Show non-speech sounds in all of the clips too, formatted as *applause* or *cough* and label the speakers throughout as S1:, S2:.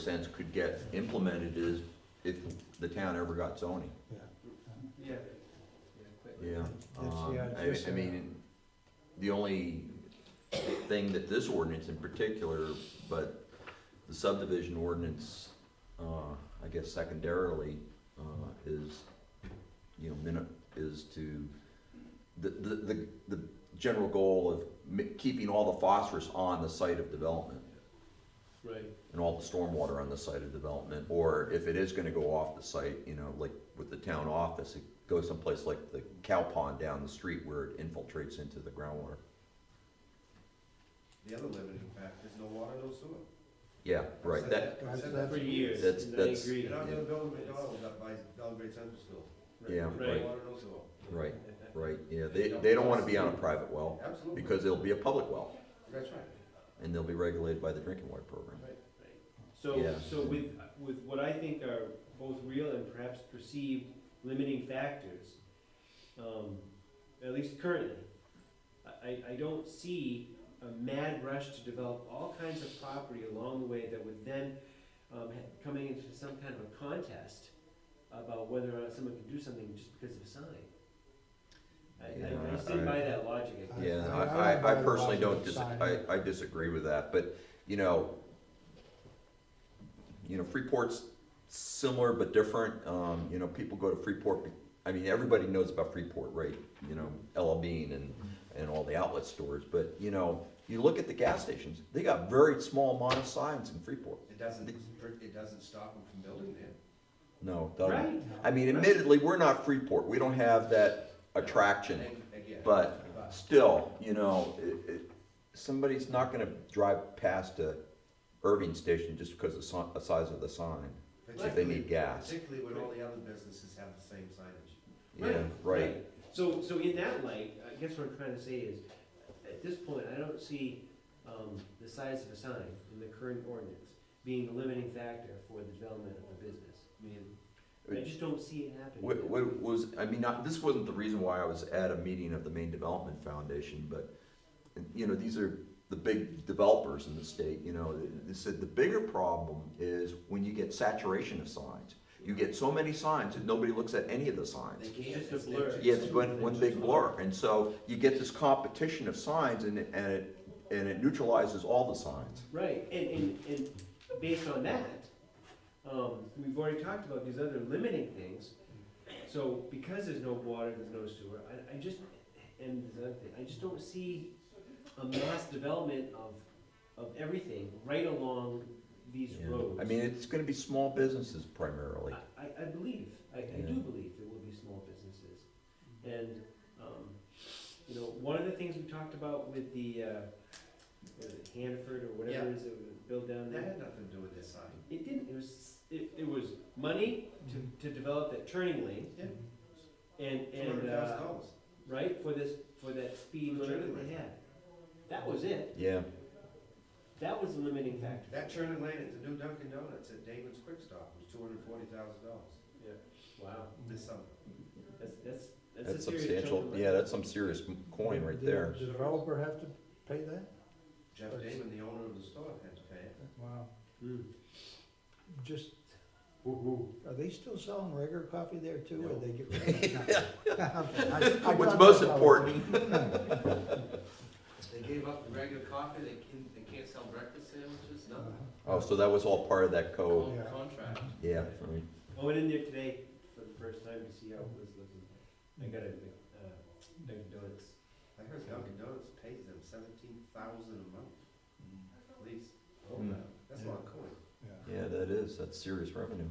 S1: sense could get implemented is if the town ever got zoning,
S2: Yeah.
S1: yeah. Um,
S3: yeah,
S1: I,
S3: just,
S1: I mean, the only thing that this ordinance in particular, but the subdivision ordinance, uh, I guess secondarily, uh, is, you know, minute, is to, the, the, the, the general goal of mi- keeping all the phosphorus on the site of development.
S2: Right.
S1: and all the stormwater on the site of development, or if it is gonna go off the site, you know, like with the town office, it goes someplace like the cow pond down the street where it infiltrates into the groundwater.
S4: The other limiting factor is no water, no sewer.
S1: Yeah, right,
S4: Said
S1: that,
S4: I've said
S3: That's-
S2: For
S4: for
S2: years,
S1: That's-
S2: and I
S1: that's-
S2: agree.
S4: You're not gonna build a McDonald's up by Belgrade Central School.
S1: Yeah,
S4: No
S2: right.
S4: water, no sewer.
S1: right, right, yeah, they, they don't wanna be on a private well,
S4: Absolutely,
S1: because it'll be a public well,
S4: that's right.
S1: and they'll be regulated by the drinking water program.
S2: So,
S1: Yeah.
S2: so with, with what I think are both real and perhaps perceived limiting factors, um, at least currently, I, I- I don't see a mad rush to develop all kinds of property along the way that would then, um, ha- coming into some kind of a contest about whether or not someone can do something just because of a sign. I, I, I
S1: Yeah,
S2: stand by that logic. I guess.
S1: Yeah,
S3: I- I
S1: I,
S3: don't
S1: I, I
S3: buy the
S1: personally don't
S3: logic of
S1: dis, I,
S3: signing.
S1: I disagree with that, but, you know, you know, Freeport's similar but different, um, you know, people go to Freeport, be- I mean, everybody knows about Freeport, right? You know, Ella Bean and, and all the outlet stores, but, you know, you look at the gas stations, they got very small amount of signs in Freeport.
S4: It doesn't, it doesn't stop them from building there.
S1: No, it doesn't.
S2: Right?
S1: I mean, admittedly, we're not Freeport, we don't have that attraction.
S4: And again,
S1: But still, you know, it, it, somebody's not gonna drive past a Irving station just because of the si- the size of the sign, if they need
S4: Particularly,
S1: gas.
S4: particularly when all the other businesses have the same signage.
S1: Yeah, right.
S2: So, so in that light, I guess what I'm trying to say is, at this point, I don't see, um, the size of a sign in the current ordinance being the limiting factor for the development of the business. I mean, I just don't see it happening.
S1: What, what was, I mean, not, this wasn't the reason why I was at a meeting of the Maine Development Foundation, but, you know, these are the big developers in the state, you know, they said the bigger problem is when you get saturation of signs. You get so many signs that nobody looks at any of the signs.
S4: They can't.
S2: just a
S4: it's- they're
S2: blur.
S4: just-
S1: Yeah, it's one, one big blur, and so you get this competition of signs and it, and it, and it neutralizes all the signs.
S2: Right, and, and, and based on that, um, we've already talked about these other limiting things. So because there's no water, there's no sewer, I, I just, and there's other thing, I just don't see a mass development of, of everything right along these roads.
S1: I mean, it's gonna be small businesses primarily.
S2: I, I- I believe, I, I do
S1: Yeah.
S2: believe there will be small businesses. And, um, you know, one of the things we talked about with the, uh, what is it, Hanford or whatever
S4: Yeah.
S2: it is that was built down
S4: That
S2: there.
S4: had nothing to do with their sign.
S2: It didn't, it was, it, it was money to, to develop that turning lane
S4: Yeah,
S2: and,
S4: two
S2: and,
S4: hundred thousand
S2: uh,
S4: dollars.
S2: right, for this, for that speed
S4: For the
S2: limit
S4: turning
S2: that they
S4: lane.
S2: had. That was it,
S1: Yeah,
S2: that was the limiting factor.
S4: That turning lane at the new Dunkin' Donuts at David's Quick Stop was two hundred and forty thousand dollars
S2: Wow,
S4: this summer.
S2: that's, that's, that's a
S1: that's
S2: serious chunk
S1: substantial,
S2: of money.
S1: yeah, that's some serious coin right
S3: Did
S1: there.
S3: The developer have to pay that?
S4: Jeff Damon, the owner of the store, had to pay it.
S3: Wow,
S2: Mm.
S3: just,
S2: Woo, woo.
S3: are they still selling regular coffee there too, or
S4: No.
S3: they get? rid of
S4: *laughs*
S3: it? *laughs* I- I- I
S1: What's
S3: thought
S1: most
S3: that's how it-
S1: important,
S5: They gave up the regular coffee, they can, they can't sell breakfast sandwiches,
S3: Uh,
S5: no,
S1: oh, so that was all part of that
S4: Oh.
S1: code,
S5: Con-
S3: yeah.
S5: contract.
S2: Oh.
S1: yeah, I mean,
S2: I went in there today for the first time to see how it was looking. I got a, uh, Dunkin' Donuts.
S4: I heard Dunkin' Donuts pays them seventeen thousand a month, at least.
S2: Oh,
S1: Hmm.
S4: That's a lot of coin.
S3: Yeah.
S1: yeah, that is, that's serious revenue.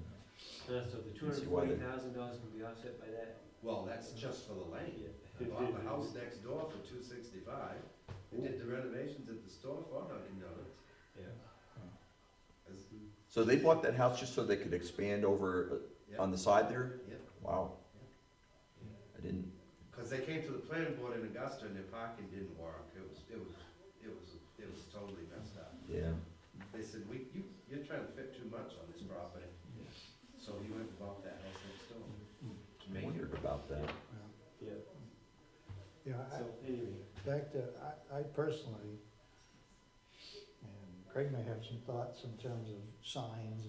S2: Uh, so the two
S1: Let's see
S2: hundred
S1: why
S2: forty
S1: they-
S2: thousand dollars can be offset by that.
S4: Well, that's just for the lane. I bought the house next door for two sixty-five. They did the renovations at the store for Dunkin' Donuts.
S2: Yeah.
S4: As-
S1: So they bought that house just so they could expand over uh, on the side there?
S4: Yeah,
S1: Wow. I didn't,
S4: because they came to the planning board in Augusta and their parking didn't work. It was, it was, it was, it was totally messed up.
S1: yeah,
S4: They said, we, you, you're trying to fit too much on this property. So he went and bought that house next door. to
S1: I
S4: make it
S1: wondered about that.
S2: Yeah,
S3: Yeah,
S2: so anyway,
S3: I, back to, I, I personally, and Craig may have some thoughts in terms of signs